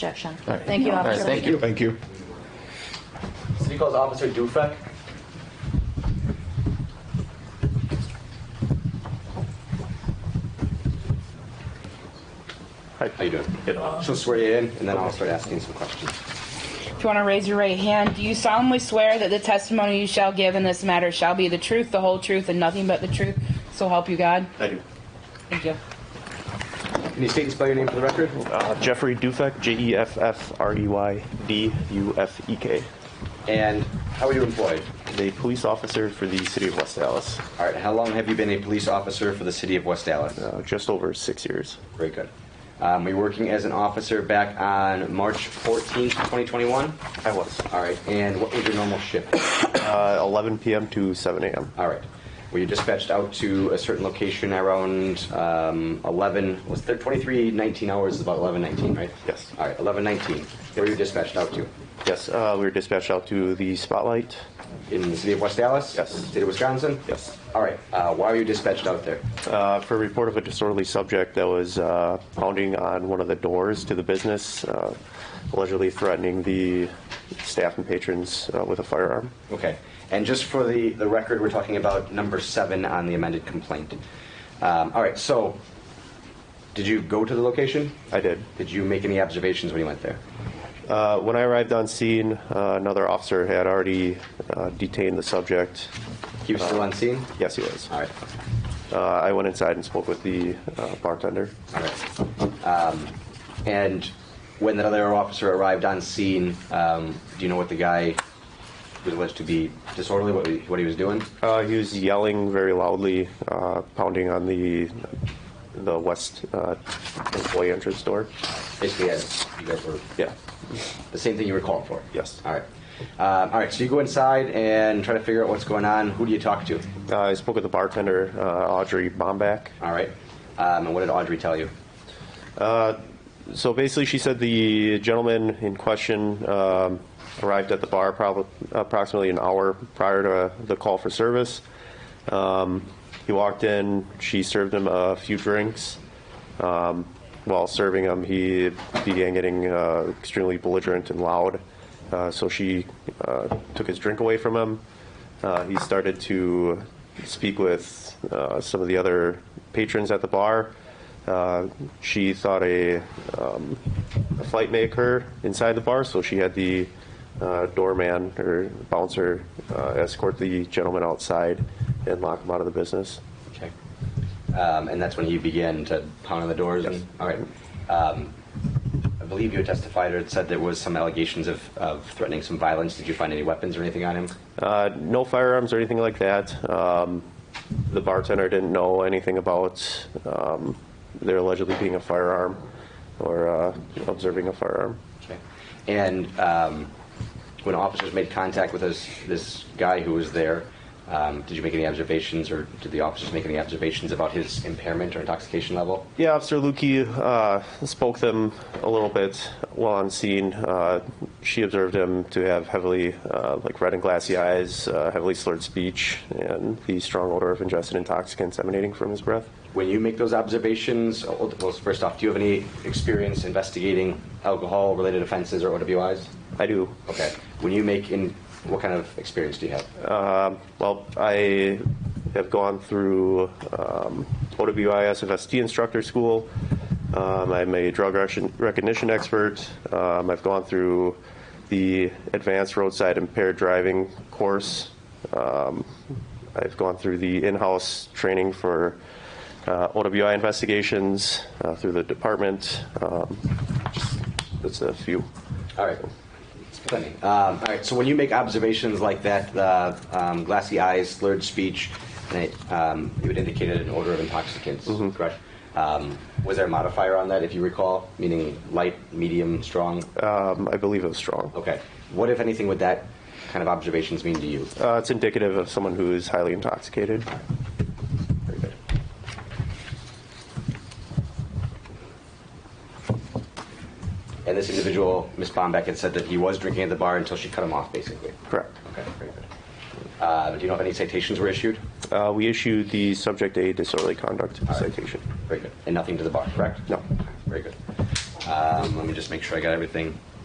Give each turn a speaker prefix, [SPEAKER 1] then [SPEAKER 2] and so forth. [SPEAKER 1] objection.
[SPEAKER 2] All right.
[SPEAKER 1] Thank you,
[SPEAKER 2] All right,
[SPEAKER 1] officer.
[SPEAKER 2] Thank you.
[SPEAKER 3] Thank you.
[SPEAKER 4] City Calls Officer Dufek.
[SPEAKER 3] Hi, how you doing?
[SPEAKER 4] She'll swear you in, and then I'll start asking some questions.
[SPEAKER 5] If you want to raise your right hand, do you solemnly swear that the testimony you shall give in this matter shall be the truth, the whole truth, and nothing but the truth? So help you God.
[SPEAKER 4] I do.
[SPEAKER 5] Thank you.
[SPEAKER 4] Can you state and spell your name for the record?
[SPEAKER 3] Uh, Jeffrey Dufek, J E F F R E Y D U F E K,
[SPEAKER 4] And how are you employed?
[SPEAKER 3] the police officer for the city of West Dallas,
[SPEAKER 4] All right, how long have you been a police officer for the city of West Dallas?
[SPEAKER 3] uh, just over six years.
[SPEAKER 4] Very good. Um, were you working as an officer back on March 14th, 2021?
[SPEAKER 3] I was.
[SPEAKER 4] All right, and what was your normal shift?
[SPEAKER 3] Uh, 11 p.m. to 7 a.m.
[SPEAKER 4] All right. Were you dispatched out to a certain location around um, 11, was there 23, 19 hours, is about 11, 19, right?
[SPEAKER 3] Yes.
[SPEAKER 4] All right, 11, 19. Where were you dispatched out to?
[SPEAKER 3] Yes, uh, we were dispatched out to the spotlight.
[SPEAKER 4] In the city of West Dallas?
[SPEAKER 3] Yes.
[SPEAKER 4] State of Wisconsin?
[SPEAKER 3] Yes.
[SPEAKER 4] All right, uh, why were you dispatched out there?
[SPEAKER 3] Uh, for a report of a disorderly subject that was uh, pounding on one of the doors to the business, uh, allegedly threatening the staff and patrons uh, with a firearm.
[SPEAKER 4] Okay. And just for the, the record, we're talking about number seven on the amended complaint. Um, all right, so did you go to the location?
[SPEAKER 3] I did.
[SPEAKER 4] Did you make any observations when you went there?
[SPEAKER 3] Uh, when I arrived on scene, uh, another officer had already uh, detained the subject.
[SPEAKER 4] He was still on scene?
[SPEAKER 3] Yes, he was.
[SPEAKER 4] All right.
[SPEAKER 3] Uh, I went inside and spoke with the uh, bartender.
[SPEAKER 4] All right. Um, and when that other officer arrived on scene, um, do you know what the guy was alleged to be disorderly, what he, what he was doing?
[SPEAKER 3] Uh, he was yelling very loudly, uh, pounding on the the west uh, employee entrance door.
[SPEAKER 4] Basically, as you guys were
[SPEAKER 3] Yeah.
[SPEAKER 4] the same thing you were calling for?
[SPEAKER 3] Yes.
[SPEAKER 4] All right. Um, all right, so you go inside and try to figure out what's going on. Who do you talk to?
[SPEAKER 3] Uh, I spoke with the bartender, uh, Audrey Bombach.
[SPEAKER 4] All right. Um, and what did Audrey tell you?
[SPEAKER 3] So basically, she said the gentleman in question um, arrived at the bar prob- approximately an hour prior to the call for service. Um, he walked in, she served him a few drinks. Um, while serving him, he began getting uh, extremely belligerent and loud. Uh, so she uh, took his drink away from him. Uh, he started to speak with uh, some of the other patrons at the bar. Uh, she thought a, um, a fight may occur inside the bar, so she had the uh, doorman or bouncer uh, escort the gentleman outside and lock him out of the business.
[SPEAKER 4] Okay. Um, and that's when you began to pound on the doors? and- all right. Um, I believe you testified or said there was some allegations of, of threatening some violence. Did you find any weapons or anything on him?
[SPEAKER 3] Uh, no firearms or anything like that. Um, the bartender didn't know anything about um, there allegedly being a firearm or uh, observing a firearm.
[SPEAKER 4] Okay. And um, when officers made contact with this, this guy who was there, um, did you make any observations or did the officers make any observations about his impairment or intoxication level?
[SPEAKER 3] Yeah, Officer Lukey uh, spoke them a little bit while on scene. Uh, she observed him to have heavily, uh, like red and glassy eyes, uh, heavily slurred speech, and the strong odor of ingested intoxicants emanating from his breath.
[SPEAKER 4] When you make those observations, oh, well, first off, do you have any experience investigating alcohol related offenses or OWIs?
[SPEAKER 3] I do
[SPEAKER 4] Okay. When you make in, what kind of experience do you have?
[SPEAKER 3] Well, I have gone through um, OWIS FST instructor school. Um, I'm a drug rec- recognition expert. Um, I've gone through the advanced roadside impaired driving course. Um, I've gone through the in house training for uh, OWI investigations uh, through the department. Um, just, that's a few.
[SPEAKER 4] All right. It's plenty. Um, all right. So when you make observations like that, uh, um, glassy eyes, slurred speech, and it, um, it would indicate an odor of intoxicants. Correct. Um, was there a modifier on that, if you recall, meaning light, medium, strong?
[SPEAKER 3] Um, I believe it was strong.
[SPEAKER 4] Okay. What, if anything, would that kind of observations mean to you?
[SPEAKER 3] Uh, it's indicative of someone who is highly intoxicated.
[SPEAKER 4] Very good. And this individual, Ms. Bombeck, had said that he was drinking at the bar until she cut him off, basically.
[SPEAKER 3] Correct.
[SPEAKER 4] Okay, very good. Uh, do you know if any citations were issued?
[SPEAKER 3] Uh, we issued the subject a disorderly conduct citation.
[SPEAKER 4] Very good. And nothing to the bar, correct?
[SPEAKER 3] No.
[SPEAKER 4] Very good. Um, Let me just make sure I got everything.